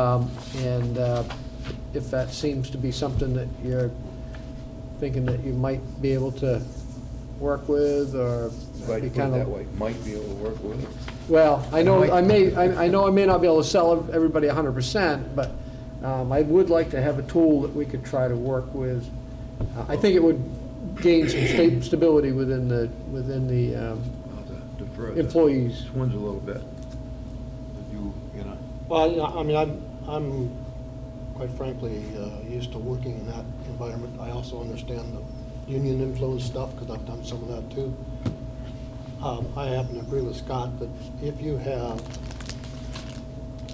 Um, And uh, if that seems to be something that you're thinking that you might be able to work with, or If I be put it kind that of... way, might be able to work with it. Well, I know, Might. I may, I I know I may not be able to sell everybody 100%, but um, I would like to have a tool that we could try to work with. Uh, I think it would gain some sta- stability within the, within the, um, I'll have to defer that. Employees. This one's a little bit, you, you know, Well, I- I mean, I'm, I'm quite frankly uh, used to working in that environment. I also understand the union influence stuff, because I've done some of that too. Um, I happen to agree with Scott that if you have,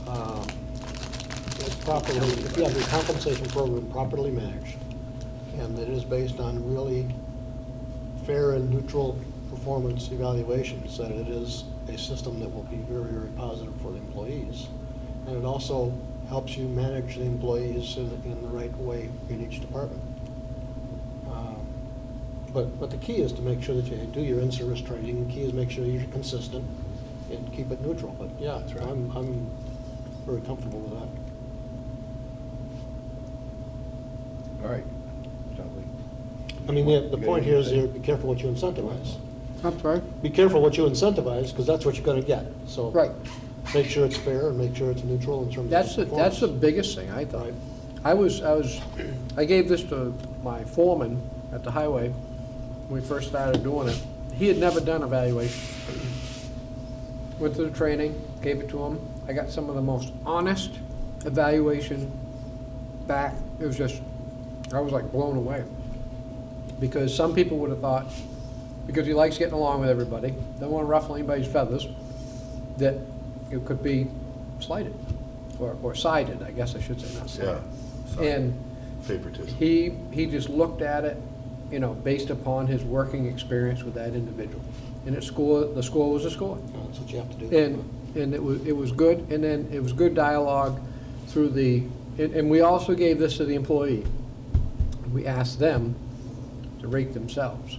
um, it's properly, if you have your compensation program properly managed, and it is based on really fair and neutral performance evaluations, that it is a system that will be very, very positive for the employees. And it also helps you manage the employees in, in the right way in each department. Um, But, but the key is to make sure that you do your in-service training, the key is make sure you're consistent and keep it neutral, but yeah, I'm, I'm very comfortable with that. all right. Sounds like- I mean, the, the point here is Yeah, you're, be careful what you incentivize. I'm sorry? Be careful what you incentivize, because that's what you're gonna get, so. Right. make sure it's fair and make sure it's neutral in terms That's, the- of that's the performance. biggest thing, I thought. Right. I was, I was, I gave this to my foreman at the highway when we first started doing it. He had never done evaluation. Went through the training, gave it to him. I got some of the most honest evaluation back. It was just, I was like blown away. Because some people would have thought, because he likes getting along with everybody, don't want to ruffle anybody's feathers, that it could be slighted, or, or sided, I guess I should say, not slighted. And Favoritism. he, he just looked at it, you know, based upon his working experience with that individual. And it score, the score was a score. That's what you have to do. And, and it was, it was good, and then it was good dialogue through the, and, and we also gave this to the employee. We asked them to rate themselves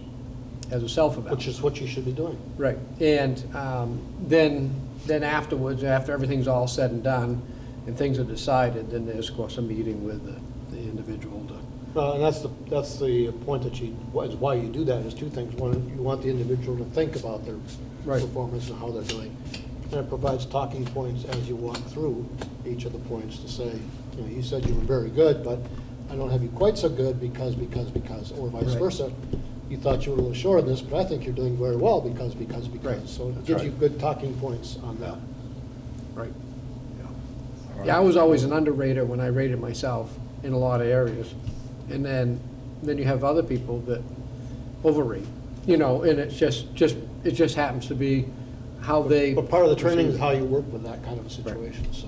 as a self-evaluation. Which is what you should be doing. Right, and um, then, then afterwards, after everything's all said and done, and things are decided, then there's, of course, a meeting with the the individual to, Uh, And that's the, that's the point that you, why- is why you do that, is two things. One, you want the individual to think about their Right. performance and how they're doing. And it provides talking points as you walk through each of the points to say, you know, you said you were very good, but I don't have you quite so good because, because, because, or vice Right. versa. You thought you were a little short on this, but I think you're doing very well because, because, Right. because. So it That's gives you right. good talking points on that. right. all Yeah, I right. was always an underrater when I rated myself in a lot of areas. And then, then you have other people that overrate, you know, and it's just, just, it just happens to be how they. But part of the training perceive is it. how you work with that kind of a situation, so.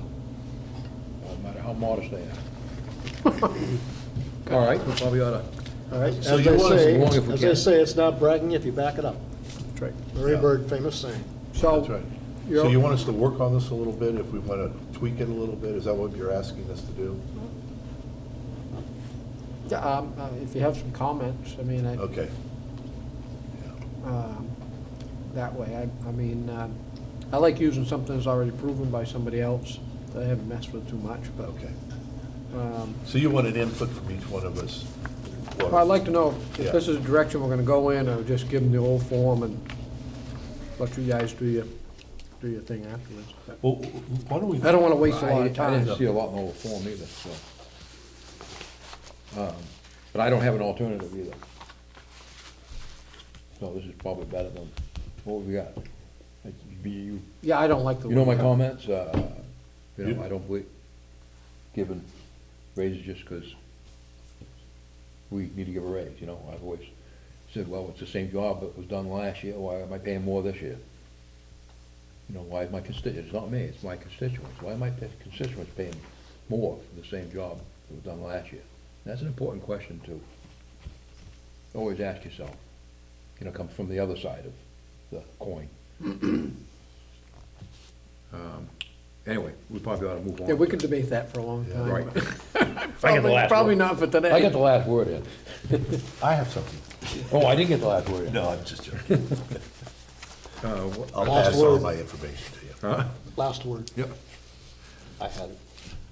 No matter how modest they are. All right, we probably ought to, All right, as So you I want us say, along if we as I can. say, it's not bragging if you back it up. That's right. Larry Yeah. Bird, famous saying. So. That's right. you're- So you want us to work on this a little bit, if we want to tweak it a little bit, is that what you're asking us to do? Mm-hmm. Yeah, um, uh, if you have some comments, I mean, I. Okay. um, that way. I, I mean, um, I like using something that's already proven by somebody else that I haven't messed with too much, but. Okay. um, So you want an input from each one of us? well, I'd like to know if Yeah. this is the direction we're gonna go in, or just give them the old form and let you guys do your, do your thing afterwards. but- Well, why don't we? I don't wanna waste a I lot of I time. didn't see a lot in the whole form either, so. Um, But I don't have an alternative either. So this is probably better than what we got. It'd be You Yeah, I don't like the. You know my look. comments, uh, you know, You- I don't believe giving raises just because we need to give a raise, you know, I've always said, well, it's the same job that was done last year, why am I paying more this year? You know, why is my constituents, it's not me, it's my constituents, why am I pay- constituents paying more for the same job that was done last year? That's an important question to always ask yourself, you know, comes from the other side of the coin. Um, Anyway, we probably ought to move on. Yeah, we could debate that for a long time. Right. but I get the probably- last Probably word. not for today. I got the last word in. I have something. Oh, I didn't get the last word in. No, I'm just joking. Uh, wh- I'll Last pass all word. my information to you. Last word. Yep. I had it.